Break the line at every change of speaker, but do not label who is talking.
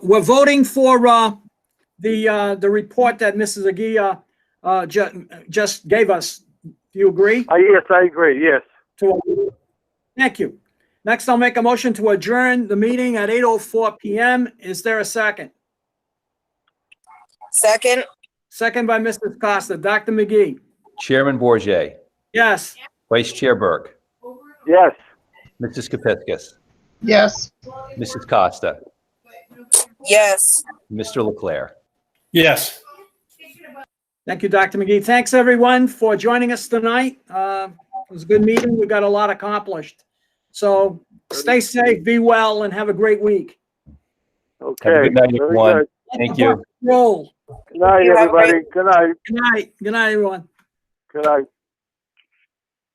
we're voting for uh, the, uh, the report that Mrs. Agia uh, ju- just gave us. Do you agree?
Uh, yes, I agree, yes.
to- Thank you. Next, I'll make a motion to adjourn the meeting at 8:04 PM. Is there a second?
Second,
Second by Mrs. Costa. Dr. McGee?
Chairman Bourget,
Yes.
Vice Chair Burke,
Yes.
Mrs. Kepiscus,
Yes.
Mrs. Costa,
yes.
Mr. Leclerc.
Yes.
Thank you, Dr. McGee. Thanks, everyone, for joining us tonight. Uh, It was a good meeting. We got a lot accomplished. So stay safe, be well, and have a great week.
Okay.
Have a good night,
Very
everyone.
good.
Thank you.
Roll.
Good night,
You have a great-
everybody. Good night.
Good night. Good night, everyone.
Good night.